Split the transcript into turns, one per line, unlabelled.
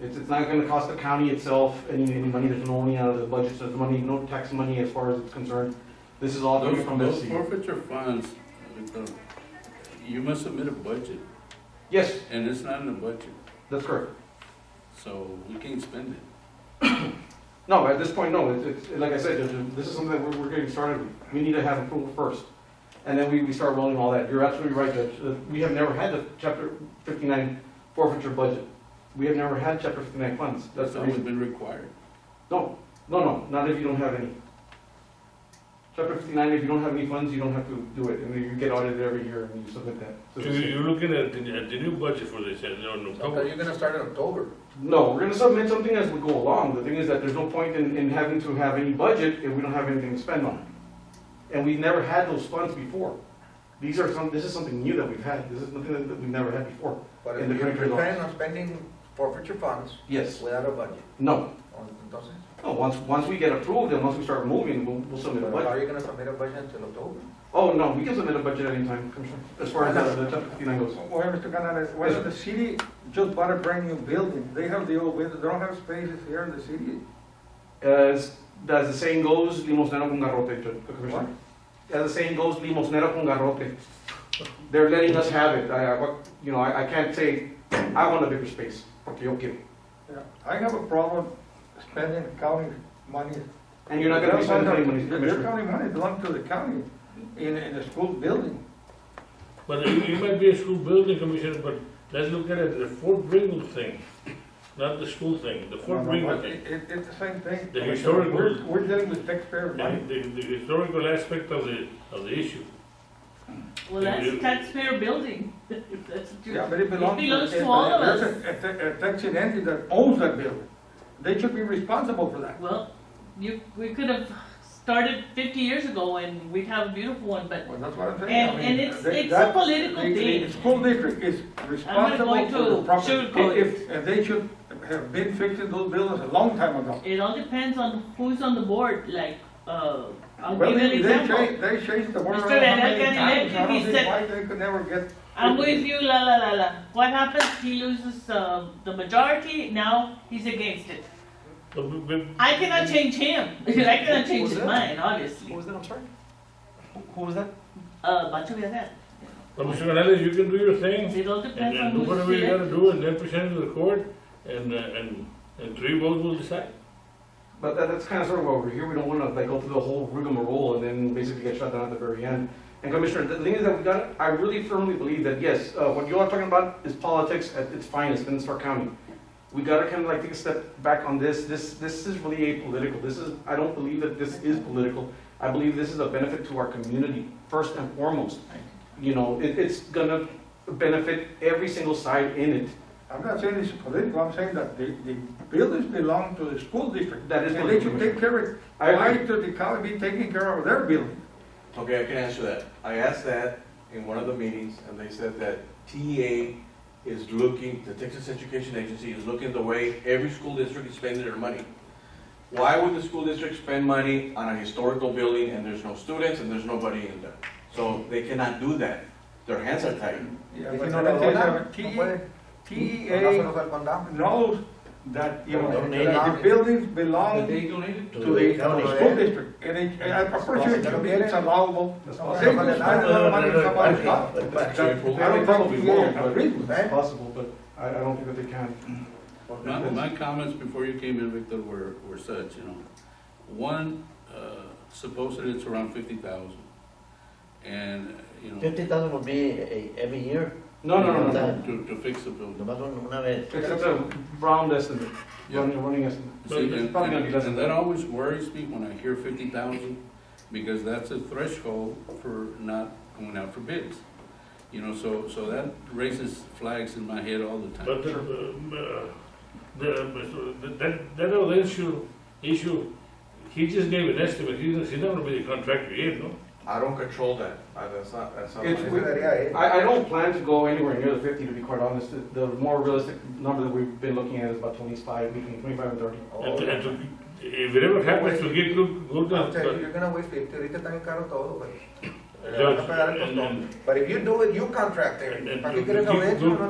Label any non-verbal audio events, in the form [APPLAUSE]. It's, it's not gonna cost the county itself any, any money, there's no money out of the budget, so there's money, no tax money as far as it's concerned. This is all coming
Those
from
those
this.
forfeiture funds, uh, you must submit a budget,
Yes,
and it's not in the budget,
that's correct.
so we can't spend it.
No, at this point, no, it's, it's, like I said, there's- this is something that we're, we're getting started with. We need to have approval first. And then we, we start rolling all that. You're absolutely right, Judge. Uh, We have never had the chapter fifty-nine forfeiture budget. We have never had chapter fifty-nine funds. That's
That's
the
always
reason.
been required.
No, no, no, not if you don't have any. Chapter fifty-nine, if you don't have any funds, you don't have to do it. And then you get audited every year and you submit that. So
So
it's-
you're looking at the, at the new budget for this, and no, no,
Okay,
no.
you're gonna start in October.
No, we're gonna submit something as we go along. The thing is that there's no point in, in having to have any budget if we don't have anything to spend on. And we've never had those funds before. These are some, this is something new that we've had. This is nothing that that we've never had before.
But
In the
if you're
country law.
planning on spending forfeiture funds
Yes.
without a budget,
No,
or- entonces,
no, once, once we get approved and once we start moving, we'll, we'll submit a
but how
budget.
are you gonna submit a budget until October?
Oh, no, we can submit a budget anytime, Commissioner, as far as the, the chapter fifty-nine goes.
Why, Mr. Canales, why
Yes,
the city just bought a brand new building? They have the old windows, they don't have spaces here in the city.
As, as the saying goes, limosnero con garrote, Judge- Commissioner. As the saying goes, limosnero con garrote. They're letting us have it. I, I, what- you know, I, I can't say, I want a bigger space, porque yo quiero.
Yeah. I have a problem spending county money.
And you're not gonna be spending any money,
Their
Commissioner.
county money belongs to the county in, in a school building.
But it, it might be a school building commissioner, but let's look at it, the Fort Ringel thing, not the school thing, the Fort Ringel
It,
thing.
it, it's the same thing.
The historic
We're,
building.
we're dealing with taxpayer money.
And the, the historical aspect of the, of the issue.
Well, that's taxpayer building, [LAUGHS] if that's what
Yeah,
you're,
but it belongs.
It belongs to all of
there's
us.
a- a- a taxing entity that owns that building. They should be responsible for that.
well, you, we could have started fifty years ago and we'd have a beautiful one, but,
Well, that's what I'm saying. I
and,
mean,
and it's,
they-
it's
that-
a political
The- The
thing.
school district is responsible
going
for the
to
property.
sugarcoat
If- And they should have been fixing those buildings a long time ago.
It all depends on who's on the board, like, uh, I'll
Well,
give you an
they- They
example.
changed, they changed the word.
Mr.
around how
Daniel
many times. I
got elected,
don't
he said-
see why they could never get.
I'm with you, la la la la. What happens, he loses, uh, the majority, now he's against it.
But, but- but
I cannot change him, [LAUGHS] because I cannot change
was
his
that?
mind, obviously.
What was that? I'm sorry. Who, who was that?
Uh, Bacho Villarreal.
Commissioner Canales, you can do your thing,
It all
and,
depends on
and
who's
do
elected.
whatever you gotta do, and then present it to the court, and, uh, and, and three votes will decide.
But that, that's kind of sort of why we're here. We don't wanna like go through the whole rigmarole and then basically get shut down at the very end. And Commissioner, the thing is that we got, I really firmly believe that, yes, uh, what you are talking about is politics at its finest in Stark County. We gotta kind of like take a step back on this. This, this is really apolitical. This is, I don't believe that this is political. I believe this is a benefit to our community, first and foremost. You know, it, it's gonna benefit every single side in it.
I'm not saying it's political, I'm saying that the, the buildings belong to the school district.
That is
And
what
they
the
should
commission-
take care of it.
I agree.
Why should the county be taking care of their building?
Okay, I can answer that. I asked that in one of the meetings, and they said that TEA is looking, the Texas Education Agency is looking at the way every school district is spending their money. Why would the school district spend money on a historical building and there's no students and there's nobody in there? So they cannot do that. Their hands are tied.
Yeah,
If
but
you no
the
lo
thing is,
donan,
T-
no puede. No se
TEA
los da el condado.
knows that, you know,
Donate.
that the buildings belong
they donated
to the school district, and it, and I'm pretty sure it should be- it's allowable.
That's
No,
They
Same.
possible.
can spend a lot of money on somebody's stuff, but that- I don't think we can agree with
It's
that.
possible, but I, I don't think that they can.
My, my comments before you came in, Victor, were, were such, you know, one, uh, supposedly it's around fifty thousand, and, uh, you know,
Fifty thousand would be eh, every year,
No, no, no, no, no.
to, to fix the building.
nomás un- una vez.
Except a round estimate,
Yeah.
running, running estimate.
But
See,
it's
and-
probably gonna be less
and
than
that always worries me when I hear fifty thousand, because that's a threshold for not going out for bids. You know, so, so that raises flags in my head all the time.
But the, uh, the, the, that, that other issue, issue, he just gave an estimate, he's, he's not gonna be the contractor yet, no?
I don't control that. I- That's not, that's not.
It's-
my-
we-
eh?
I, I don't plan to go anywhere near the fifty, to be quite honest. The- The more realistic number that we've been looking at is about twenty-five, between twenty-five and thirty.
And to- and to- if it ever happens to get good, good,
O sea,
uh,
You're gonna waste fifty, ahorita está bien caro todo, güey.
judge, and, and
But if you do it, you contract
And-
it.
and
¿Para
to-
qué quieres
to
lo
keep
hecho?
good
No